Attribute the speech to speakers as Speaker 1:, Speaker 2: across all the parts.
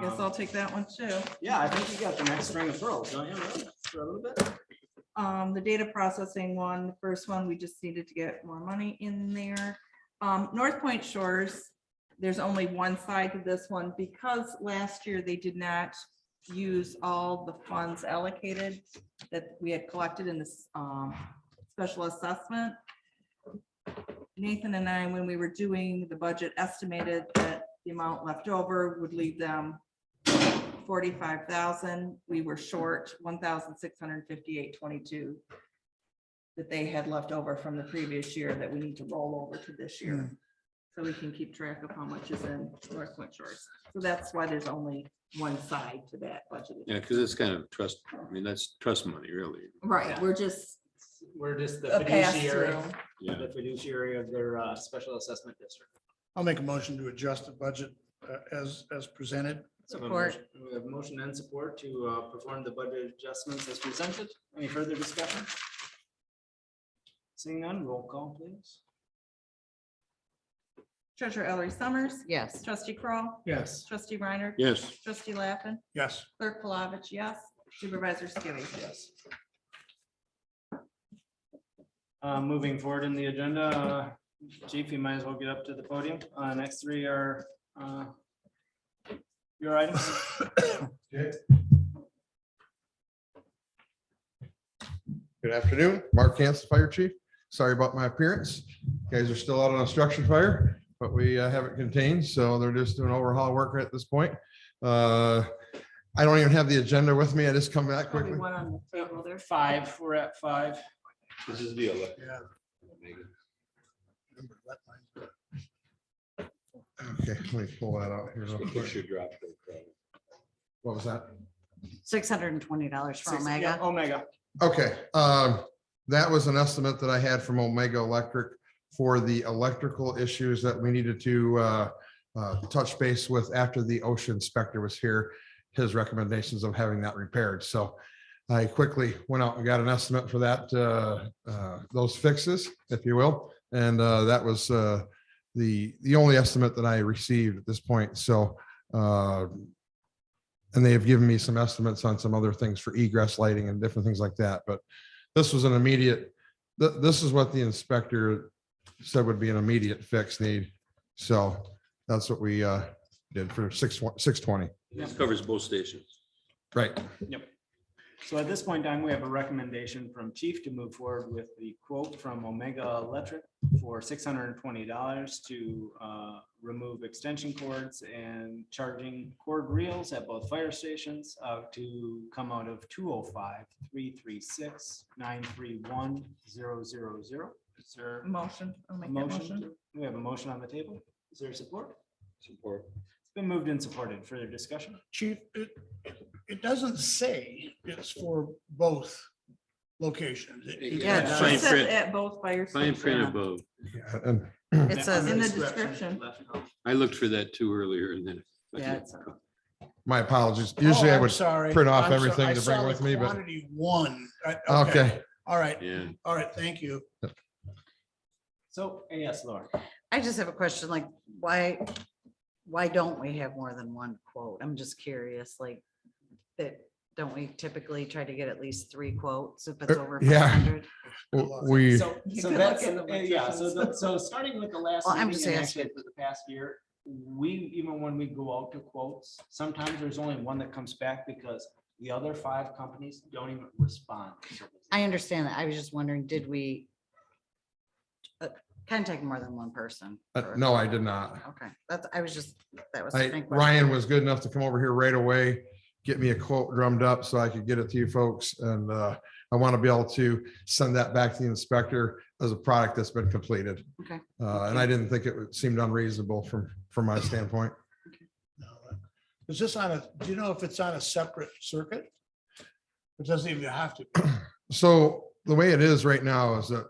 Speaker 1: guess I'll take that one too.
Speaker 2: Um, Yeah, I think you got the next string of pearls, don't you? Lou? For a little bit.
Speaker 1: Um, the data processing one, the first one, we just needed to get more money in there. Um, North Point Shores, there's only one side to this one because last year they did not use all the funds allocated that we had collected in this, um, special assessment. Nathan and I, when we were doing the budget, estimated that the amount left over would leave them forty-five thousand, we were short one thousand six hundred fifty-eight twenty-two that they had left over from the previous year that we need to roll over to this year. So we can keep track of how much is in North Point Shores. So that's why there's only one side to that budget.
Speaker 3: Yeah, because it's kind of trust, I mean, that's trust money, really.
Speaker 1: Right, we're just
Speaker 2: We're just the
Speaker 1: a pass
Speaker 2: fiduciary,
Speaker 1: through.
Speaker 3: Yeah,
Speaker 2: the fiduciary of their uh, special assessment district.
Speaker 4: I'll make a motion to adjust the budget uh, as, as presented.
Speaker 2: So we have a
Speaker 1: Support.
Speaker 2: motion- We have motion and support to uh, perform the budget adjustments as presented. Any further discussion? Seeing none, roll call please.
Speaker 1: Treasurer Ellery Summers,
Speaker 5: Yes,
Speaker 1: trustee Crawl,
Speaker 2: Yes.
Speaker 1: trustee Reiner,
Speaker 3: yes,
Speaker 1: trustee Lappin,
Speaker 4: Yes,
Speaker 1: clerk Palovich, yes, supervisor Skibby.
Speaker 2: Yes. Uh, moving forward in the agenda, uh, chief, you might as well get up to the podium. Uh, next three are, uh, your items.
Speaker 6: Good afternoon, Mark Cantz, Fire Chief. Sorry about my appearance. Guys are still out on a structure fire, but we uh, have it contained, so they're just doing overhaul work at this point. Uh, I don't even have the agenda with me. I just come back
Speaker 1: Probably
Speaker 6: quickly.
Speaker 1: one on the table there.
Speaker 2: Five, we're at five.
Speaker 3: this is the elect.
Speaker 4: yeah.
Speaker 6: Okay, let me pull that out here. real quick. What was that?
Speaker 5: six hundred and twenty dollars for
Speaker 2: Six- yeah,
Speaker 5: Omega.
Speaker 2: Omega.
Speaker 6: Okay, um, that was an estimate that I had from Omega Electric for the electrical issues that we needed to, uh, uh, touch base with after the ocean inspector was here, his recommendations of having that repaired. So I quickly went out and got an estimate for that, uh, uh, those fixes, if you will. And, uh, that was, uh, the, the only estimate that I received at this point. So, uh, and they have given me some estimates on some other things for egress lighting and different things like that, but this was an immediate, th- this is what the inspector said would be an immediate fix need. So that's what we uh, did for six, six twenty,
Speaker 3: This covers both stations.
Speaker 6: right?
Speaker 2: So at this point in time, we have a recommendation from chief to move forward with the quote from Omega Electric for six hundred and twenty dollars to uh, remove extension cords and charging cord reels at both fire stations uh, to come out of 205-336-931-000. Is there
Speaker 1: Motion, I'll
Speaker 2: a
Speaker 1: make that motion.
Speaker 2: motion? We have a motion on the table. Is there support?
Speaker 3: Support.
Speaker 2: It's been moved and supported. Further discussion?
Speaker 4: Chief, it, it doesn't say it's for both locations. It- it-
Speaker 3: Yeah,
Speaker 5: it's
Speaker 1: It
Speaker 3: Fine
Speaker 1: says
Speaker 3: print.
Speaker 1: At both fire
Speaker 3: Fine print
Speaker 1: stations.
Speaker 3: above.
Speaker 6: Yeah, And
Speaker 5: It says,
Speaker 1: In the
Speaker 5: it's-
Speaker 1: description.
Speaker 2: Left and right.
Speaker 3: I looked for that too earlier and then.
Speaker 5: yeah, it's-
Speaker 6: my apologies.
Speaker 4: Oh,
Speaker 6: Usually I
Speaker 4: I'm
Speaker 6: would,
Speaker 4: sorry.
Speaker 6: print off
Speaker 4: I'm sorry.
Speaker 6: everything
Speaker 4: I
Speaker 6: to bring
Speaker 4: saw the
Speaker 6: with me, but-
Speaker 4: quantity One. I-
Speaker 6: okay,
Speaker 4: All right,
Speaker 3: Yeah,
Speaker 4: all right, thank you.
Speaker 2: So, uh, yes, Laura.
Speaker 5: I just have a question, like, why, why don't we have more than one quote? I'm just curious, like, that, don't we typically try to get at least three quotes if it's
Speaker 6: Uh,
Speaker 5: over
Speaker 6: yeah.
Speaker 5: five hundred?
Speaker 6: w- we,
Speaker 2: So,
Speaker 1: You
Speaker 2: so
Speaker 1: could
Speaker 2: that's,
Speaker 1: look at the
Speaker 2: uh, yeah, so,
Speaker 1: budgets.
Speaker 2: the- so starting with the last
Speaker 5: Well, I'm
Speaker 2: meeting
Speaker 5: just
Speaker 2: and
Speaker 5: asking.
Speaker 2: actually for the past year, we, even when we go out to quotes, sometimes there's only one that comes back because the other five companies don't even respond.
Speaker 5: I understand that. I was just wondering, did we uh, contact more than one person?
Speaker 6: uh,
Speaker 5: for-
Speaker 6: no, I did not.
Speaker 5: Okay, that's, I was just, that was. the
Speaker 6: I,
Speaker 5: main question.
Speaker 6: Ryan was good enough to come over here right away, get me a quote drummed up so I could get it to you folks. And uh, I want to be able to send that back to the inspector as a product that's been completed.
Speaker 5: Okay.
Speaker 6: Uh, And I didn't think it would- seemed unreasonable from, from my standpoint.
Speaker 4: Is this on a, do you know if it's on a separate circuit? It doesn't even have to.
Speaker 6: So the way it is right now is that,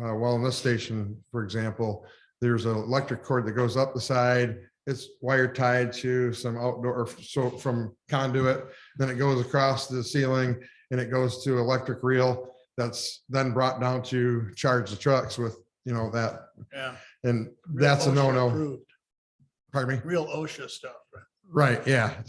Speaker 6: uh, well, in this station, for example, there's an electric cord that goes up the side. It's wire tied to some outdoor, so from conduit, then it goes across the ceiling and it goes to electric reel. That's then brought down to charge the trucks with, you know, that,
Speaker 4: Yeah.
Speaker 6: and
Speaker 4: Real
Speaker 6: that's a
Speaker 4: OSHA
Speaker 6: no-no.
Speaker 4: approved,
Speaker 6: Pardon me?
Speaker 4: Real OSHA stuff, right?
Speaker 6: Right, yeah.